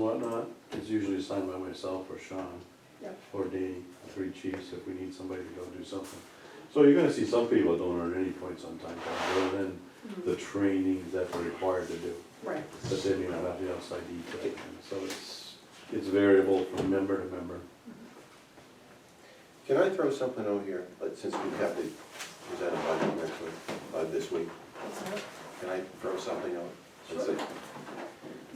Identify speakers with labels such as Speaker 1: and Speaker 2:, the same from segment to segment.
Speaker 1: whatnot, it's usually assigned by myself or Sean.
Speaker 2: Yep.
Speaker 1: Or Danny, the three chiefs, if we need somebody to go do something. So you're gonna see some people that don't earn any points on time clock, other than the trainings that they're required to do.
Speaker 2: Mm-hmm. Right,
Speaker 1: But they may not have the outside detail, and so it's, it's variable from member to member.
Speaker 3: Can I throw something out here, like, since we have to present a budget next week, uh, this week,
Speaker 2: That's all right.
Speaker 3: can I throw something out? Let's
Speaker 2: Sure.
Speaker 3: see.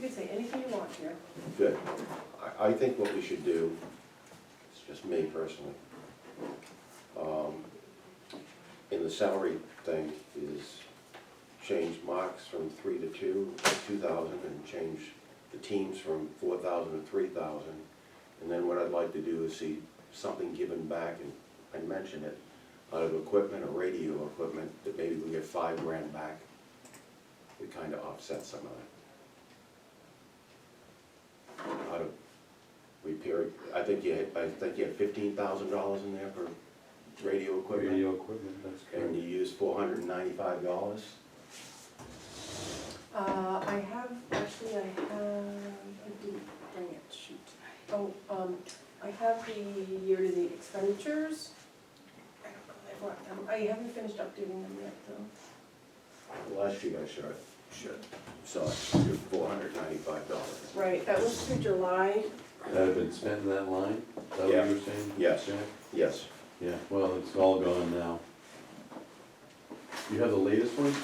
Speaker 2: you can say anything you want here.
Speaker 3: Good. I, I think what we should do, it's just me personally, um, in the salary thing is change Mark's from three to two, two thousand, and change the teams from four thousand to three thousand. And then what I'd like to do is see something given back, and I mentioned it, out of equipment or radio equipment, that maybe we get five grand back. It kind of offsets some of that how to repair it. I think you had, I think you had fifteen thousand dollars in there for radio equipment,
Speaker 1: Radio equipment, that's
Speaker 3: and you
Speaker 1: correct.
Speaker 3: used four hundred and ninety-five dollars.
Speaker 2: Uh, I have, actually, I have, I didn't bring it, shoot. Oh, um, I have the year-to-date expenditures. I don't know if I brought them, I haven't finished updating them yet, though.
Speaker 3: Last year I shot, shot, saw it, your four hundred ninety-five dollars.
Speaker 2: Right, that was through July.
Speaker 1: That had been spent in that line, is that what you were saying?
Speaker 3: Yes.
Speaker 1: Jack?
Speaker 3: Yes,
Speaker 1: Yeah, well, it's all gone now. You have the latest one?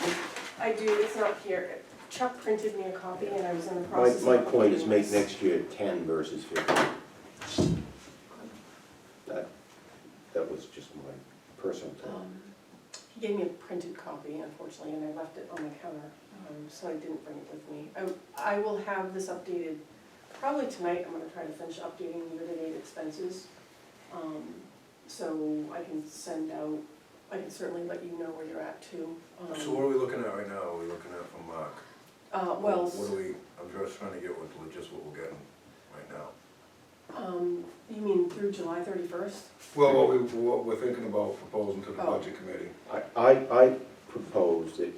Speaker 2: I do, it's not here. Chuck printed me a copy and I was in the
Speaker 3: my,
Speaker 2: process of.
Speaker 3: my point is make
Speaker 2: updating this.
Speaker 3: next year ten versus fifteen. That, that was just my personal thought.
Speaker 2: Um, He gave me a printed copy unfortunately and I left it on the counter, um, so I didn't bring it with me. I, I will have this updated, probably tonight, I'm gonna try to finish updating year-to-date expenses. Um, So I can send out, I can certainly let you know where you're at too. Um,
Speaker 4: So what are we looking at right now? Are we looking at from Mark?
Speaker 2: Uh, well,
Speaker 4: What do we, I'm just trying to get with just what we're getting right now.
Speaker 2: um, you mean through July thirty-first?
Speaker 4: Well, what we, what we're thinking about proposing to the
Speaker 2: Oh.
Speaker 4: budget committee.
Speaker 3: I, I, I proposed that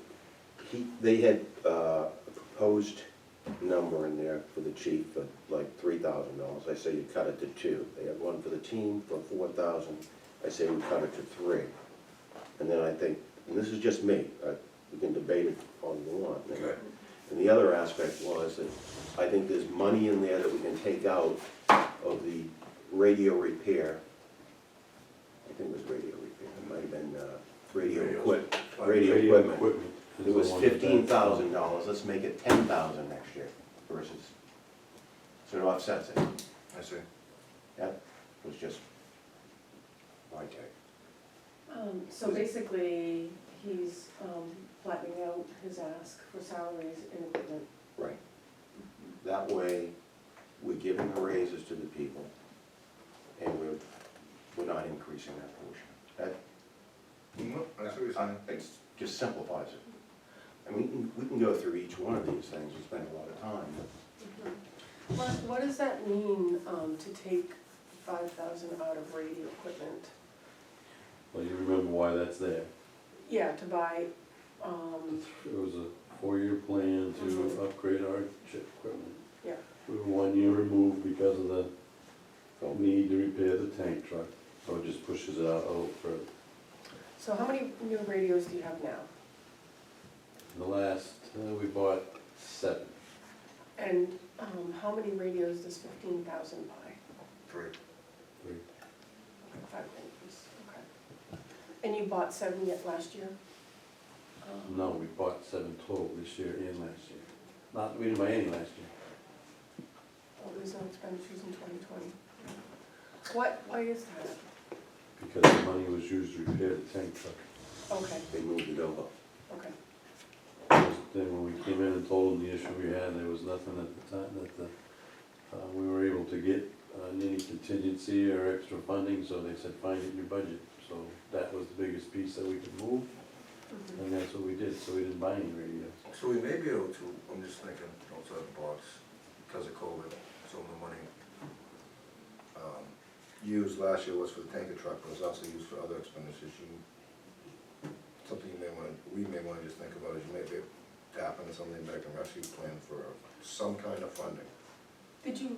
Speaker 3: he, they had uh, a proposed number in there for the chief of like three thousand dollars. I say you cut it to two. They had one for the team for four thousand. I say we cut it to three. And then I think, and this is just me, uh, we can debate it all you want.
Speaker 4: Okay.
Speaker 3: And the other aspect was that I think there's money in there that we can take out of the radio repair. I think it was radio repair, it might have been uh, radio
Speaker 4: Radios.
Speaker 3: equip, radio equipment.
Speaker 1: Uh, is
Speaker 3: It was
Speaker 1: the one that-
Speaker 3: fifteen thousand dollars, let's make it ten thousand next year versus, so it offsets it.
Speaker 4: I see.
Speaker 3: That was just my take.
Speaker 2: Um, so basically, he's, um, flattening out his ask for salaries and equipment.
Speaker 3: Right. That way, we're giving the raises to the people, and we're, we're not increasing that portion. That,
Speaker 4: No, Mm-hmm. I see what you're saying.
Speaker 3: It just simplifies it. And we can, we can go through each one of these things, we spend a lot of time, but
Speaker 2: What, what does that mean, um, to take five thousand out of radio equipment?
Speaker 1: Well, you remember why that's there.
Speaker 2: Yeah, to buy, um,
Speaker 1: It was a four-year plan to
Speaker 2: Mhm.
Speaker 1: upgrade our chip equipment.
Speaker 2: Yeah.
Speaker 1: We were one year removed because of the
Speaker 3: Well-
Speaker 1: need to repair the tank truck, so it just pushes it out a little further.
Speaker 2: so how many new radios do you have now?
Speaker 1: The last, uh, we bought seven.
Speaker 2: And, um, how many radios does fifteen thousand buy?
Speaker 4: Three.
Speaker 1: Three.
Speaker 2: Five radios, okay. And you bought seven yet last year? Um,
Speaker 1: No, we bought seven total this year and last year. Not, we didn't buy any last year.
Speaker 2: Oh, there's no expenditures in twenty twenty. What, why is that?
Speaker 1: because the money was used to repair the tank truck.
Speaker 2: Okay,
Speaker 3: they moved it over.
Speaker 2: okay.
Speaker 1: Then when we came in and told them the issue we had, there was nothing at the time that the, uh, we were able to get uh, any contingency or extra funding, so they said, find it in your budget. So that was the biggest piece that we could move,
Speaker 2: Mhm.
Speaker 1: and that's what we did, so we didn't buy any radios.
Speaker 4: So we may be able to, I'm just thinking outside the box, because of COVID, some of the money um, used last year was for the tanker truck, but it was also used for other expenditures. You- Something you may want, we may want to just think about is you may be tapping into something back in rescue plan for some kind of funding.
Speaker 2: Did you